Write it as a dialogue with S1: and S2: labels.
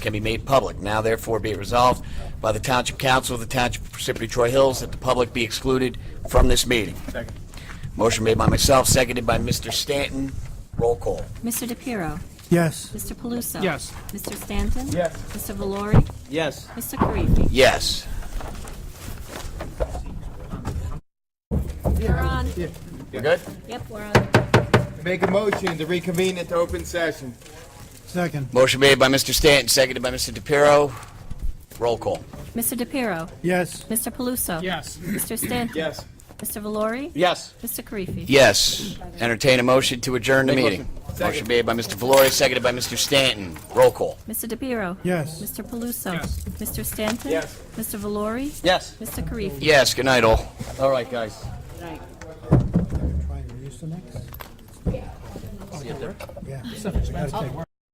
S1: can be made public. Now therefore be it resolved by the Township Council of the Township of Parsippany Troy Hills that the public be excluded from this meeting.
S2: Second.
S1: Motion made by myself, seconded by Mr. Stanton. Roll call.
S3: Mr. DePiero.
S4: Yes.
S3: Mr. Paluso.
S4: Yes.
S3: Mr. Stanton.
S2: Yes.
S3: Mr. Valori.
S2: Yes.
S3: Mr. Karifi.
S1: Yes.
S3: We're on.
S2: We're good?
S3: Yep, we're on.
S2: Make a motion to reconvene into open session.
S4: Second.
S1: Motion made by Mr. Stanton, seconded by Mr. DePiero. Roll call.
S3: Mr. DePiero.
S4: Yes.
S3: Mr. Paluso.
S4: Yes.
S3: Mr. Stanton.
S2: Yes.
S3: Mr. Valori.
S2: Yes.
S3: Mr. Karifi.
S1: Yes. Entertain a motion to adjourn the meeting.
S2: Second.
S1: Motion made by Mr. Valori, seconded by Mr. Stanton. Roll call.
S3: Mr. DePiero.
S4: Yes.
S3: Mr. Paluso. Mr. Stanton.
S2: Yes.
S3: Mr. Valori.
S2: Yes.
S3: Mr. Karifi.
S1: Yes, good night all.
S2: All right, guys.
S4: Try and use the next. Yeah. Yeah. Oh, We gotta take-